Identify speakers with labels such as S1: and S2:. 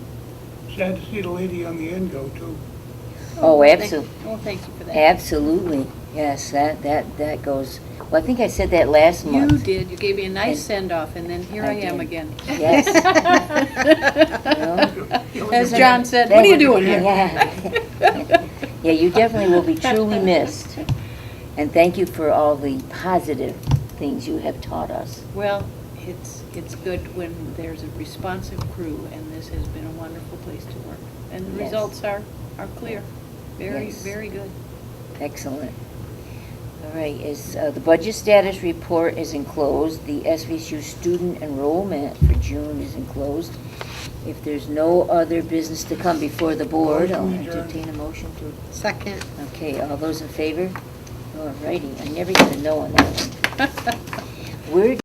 S1: Sad to see the lady on the end go too.
S2: Oh,
S3: thank-
S2: absolutely.
S3: Oh, thank you for that.
S2: Absolutely, yes, that, that, that goes, well, I think I said that last
S3: You
S2: month.
S3: did, you gave me a nice
S2: And-
S3: send-off, and then here
S2: I
S3: I am
S2: did.
S3: again.
S2: Yes. Well,
S3: As John said, what are you doing here?
S2: Yeah. Yeah, you definitely will be truly missed, and thank you for all the positive things you have taught us.
S3: Well, it's, it's good when there's a responsive crew, and this has been a wonderful place to work. And the
S2: Yes.
S3: results are, are clear, very,
S2: Yes.
S3: very good.
S2: Excellent. All right, is, uh, the budget status report is enclosed, the SVSU student enrollment for June is enclosed. If there's no other business to come before the board, I'll
S1: Motion to adjourn.
S2: entertain a motion to
S4: Second.
S2: Okay, all those in favor? All righty, I never get a no on that one. Where